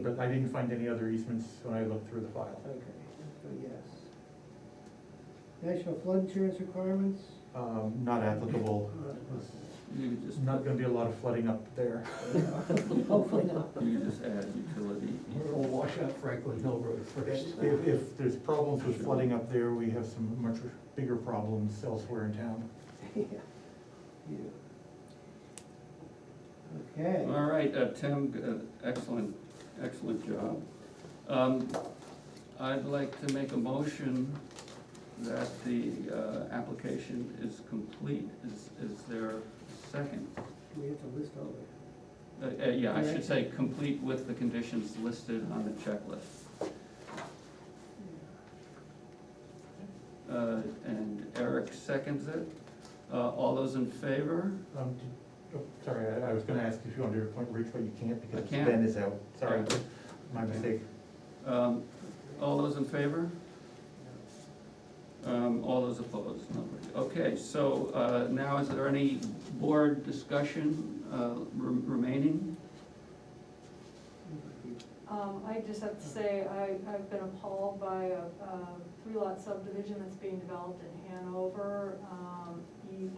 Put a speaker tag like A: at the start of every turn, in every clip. A: but I didn't find any other easements when I looked through the file.
B: Okay, so yes. National flood insurance requirements?
A: Um, not applicable,
C: You could
A: there's
C: just,
A: not gonna be a lot of flooding up there.
B: Hopefully not.
C: you could just add utility.
D: We'll wash out Franklin Hill Road first.
A: If, if there's problems with flooding up there, we have some much bigger problems elsewhere in town.
B: Yeah. Okay.
C: All right, uh, Tim, uh, excellent, excellent job. Um, I'd like to make a motion that the, uh, application is complete. Is, is there a second?
B: We have to list all the,
C: Uh, uh, yeah, I should say, complete with the conditions listed on the checklist. Uh, and Eric seconds it. Uh, all those in favor?
A: Um, did- oh, sorry, I, I was gonna ask if you wanted to appoint Rich, but you can't
C: I
A: because
C: can't.
A: Ben is out, sorry,
C: Yeah.
A: my mistake.
C: Um, all those in favor? Um, all those opposed? Nobody. Okay, so, uh, now is there any board discussion, uh, re- remaining?
E: Um, I just have to say, I, I've been appalled by a, a three-lot subdivision that's being developed in Hanover. Um, you-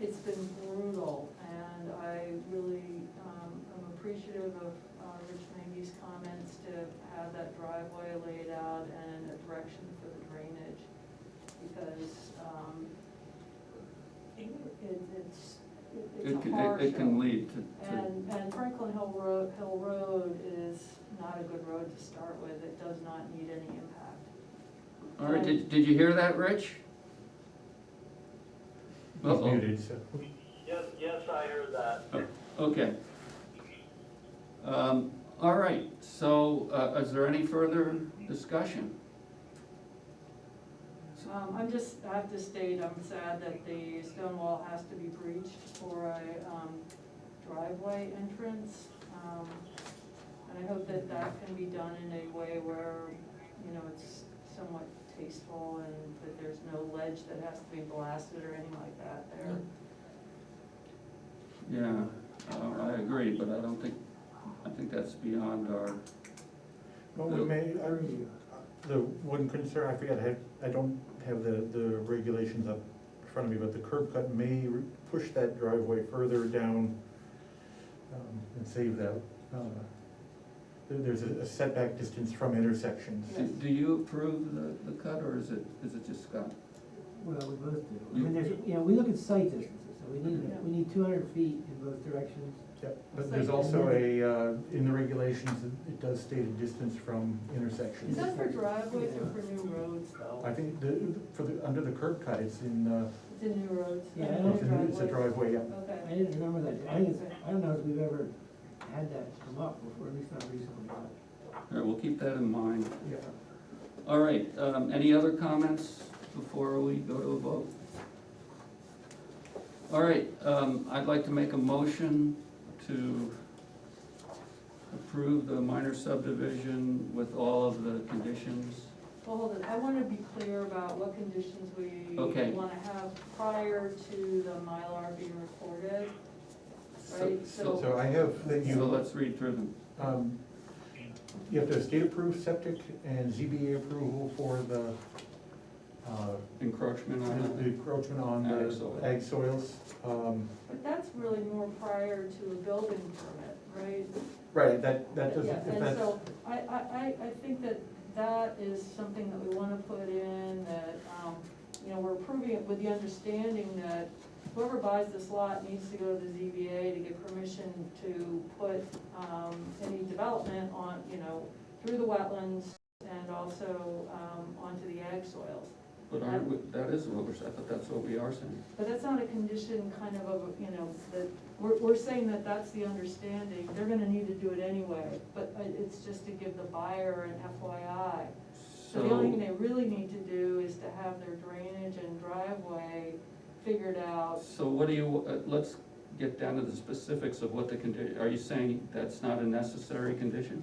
E: It's been brutal, and I really, um, am appreciative of, uh, Rich Mangy's comments to have that driveway laid out and a direction for the drainage, because, um, it, it's,
C: It
E: it's a
C: can,
E: horror
C: it- it
E: show.
C: can lead to, to,
E: And, and Franklin Hill Road, Hill Road is not a good road to start with, it does not need any impact.
C: all right, did, did you hear that, Rich?
A: He's
C: Uh-oh.
A: muted, so.
F: Yes, yes, I heard that.
C: Okay. Um, all right, so, uh, is there any further discussion?
E: Um, I'm just, I have to state, I'm sad that the stone wall has to be breached for a, um, driveway entrance. Um, And I hope that that can be done in a way where, you know, it's somewhat tasteful and that there's no ledge that has to be blasted or anything like that there.
C: Yeah, uh, I agree, but I don't think, I think that's beyond our,
A: Well, we may, I, the one concern, I forgot, I had, I don't have the, the regulations up in front of me, but the curb cut may re- push that driveway further down, um, and save that, uh, there, there's a setback distance from intersections.
C: do- do you approve the, the cut, or is it, is it just Scott?
B: well, we both do. I
C: You-
B: mean, there's, you know, we look at site distances, so we need, we need two hundred feet in both directions.
A: Yep, but there's also a, uh, in the regulations, it- it does state a distance from
E: Is
A: intersections.
E: that for driveways or for new roads though?
A: I think the, for the, under the curb cut, it's in, uh,
E: It's in new roads?
B: Yeah, I
E: New
B: don't
A: it's in- it's a
E: driveways?
A: driveway, yeah.
B: I
E: Okay.
B: didn't remember that, I think it's, I don't know if we've ever had that come up before, at least not recently, but.
C: All right, we'll keep that in mind.
A: Yeah.
C: All right, um, any other comments before we go to a vote? All right, um, I'd like to make a motion to approve the minor subdivision with all of the conditions.
E: Well, hold it, I wanna be clear about what conditions we
C: Okay.
E: wanna have prior to the Mylar being recorded.
C: So,
E: Right,
C: so,
A: So I have, that you.
C: so let's read through them.
A: Um, You have to have state-approved septic and ZBA approval for the, uh,
C: Encroachment
A: the
C: on
A: the
C: it.
A: encroachment on
C: Mm-hmm. Ag soil.
A: the ag soils. Um,
E: But that's really more prior to a building permit, right?
A: Right, that, that doesn't,
E: Yeah,
A: if
E: And
A: that's,
E: so, I, I, I, I think that that is something that we wanna put in, that, um, you know, we're approving it with the understanding that whoever buys this lot needs to go to the ZBA to get permission to put, um, any development on, you know, through the wetlands and also, um, onto the ag soils.
C: But aren't we, that is what we're, I thought that's what we are saying.
E: But that's not a condition kind of, of, you know, that, we're, we're saying that that's the understanding, they're gonna need to do it anyway, but uh, it's just to give the buyer an FYI. So the only thing
C: So,
E: they really need to do is to have their drainage and driveway figured out.
C: so what do you, uh, let's get down to the specifics of what the condi, are you saying that's not a necessary condition?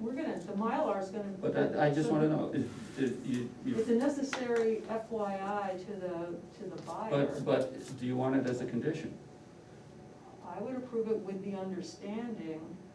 E: We're gonna, the Mylar's gonna.
C: But I, I just wanna know, is, is, you,
E: It's
C: you,
E: a necessary FYI to the, to the buyer.
C: but, but do you want it as a condition?
E: I would approve it with the understanding